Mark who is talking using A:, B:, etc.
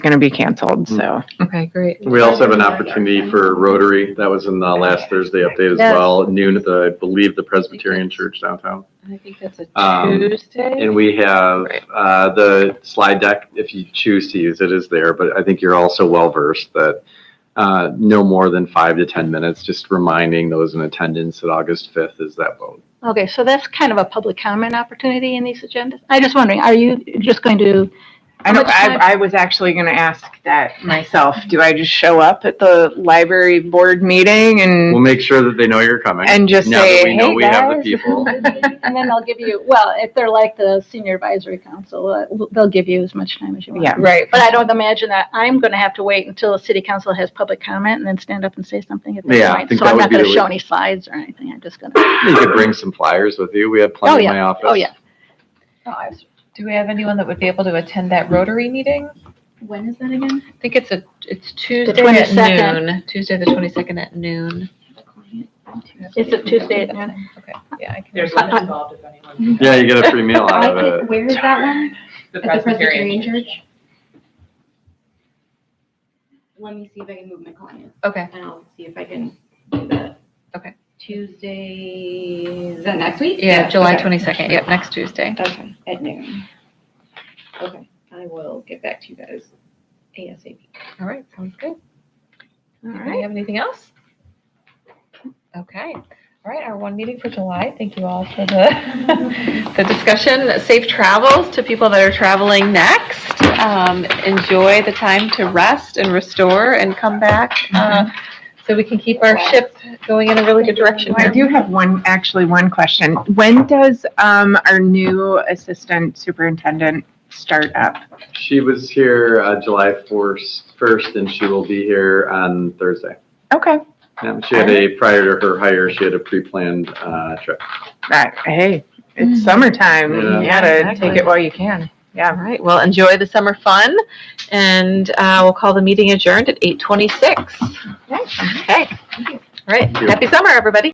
A: going to be canceled.
B: Hmm.
A: So
C: Okay, great.
B: We also have an opportunity for Rotary. That was in the last Thursday update as
D: Yes.
B: well, at noon at the, I believe, the Presbyterian Church downtown.
C: I think that's a
B: Um,
C: Tuesday.
B: And we have uh, the slide deck, if you choose to use it, is there, but I think you're also well-versed that uh, no more than five to 10 minutes, just reminding those in attendance that August 5th is that vote.
D: Okay, so that's kind of a public comment opportunity in these agendas. I'm just wondering, are you just going to,
A: I, don't, I, I was actually going to ask that myself. Do I just show up at the library board meeting and
B: We'll make sure that they know you're coming.
A: Mm-hmm. and just
B: Now
A: say,
B: that we know
A: "Hey,
B: we have the
A: guys."
B: people.
D: and then they'll give you, well, if they're like the senior advisory council, uh, they'll give you as much time as you want.
A: Yeah.
C: Right.
D: But I don't imagine that I'm going to have to wait until the city council has public comment and then stand up and say something at
B: Yeah, I
D: that point.
B: think
D: So
B: that
D: I'm
B: would
D: not
B: be
D: going
B: the
D: to
B: way-
D: show any slides or anything. I'm just going to,
B: You could bring some flyers with you. We have plenty
D: Oh,
B: in my office.
D: oh, yeah.
C: Do we have anyone that would be able to attend that Rotary meeting?
E: When is that again?
C: I think it's a, it's Tuesday at
D: 22nd.
C: noon, Tuesday the twenty-second at noon.
D: It's a Tuesday at noon.
C: Okay, yeah, I can.
F: There's one involved if anyone.
B: Yeah, you get a free meal out
E: I
B: of
E: think-
B: it.
E: Where is that one?
F: The
E: At the Presbyterian
F: Presbyterian.
E: Church? Let me see if I can move my client,
C: Okay,
E: and I'll see if I can do that.
C: Okay.
E: Tuesday, is that next week?
C: yeah, July
E: okay.
C: twenty-second, yep, next Tuesday.
E: Okay, at noon. Okay, I will get back to you guys ASAP.
C: All right, sounds good.
D: All
C: Do you
D: right.
C: have anything else? Okay, all right, our one meeting for July. Thank you all for the, the discussion. Safe travels to people that are traveling next. Um, enjoy the time to rest and restore and come back, uh, so we can keep our ship going in a really good direction
A: I
C: here.
A: do have one, actually one question. When does um, our new assistant superintendent start up?
B: She was here uh, July 4th, 1st, and she will be here on Thursday.
A: Okay.
B: Yeah, she had a, prior to her hire, she had a pre-planned uh, trip.
A: That, hey, it's summertime. You
B: Yeah.
A: gotta
C: Exactly.
A: take it while you can.
C: All right, well, enjoy the summer fun and, uh, we'll call the meeting adjourned at eight twenty-six. Okay. All right,
B: Thank you.
C: happy summer, everybody.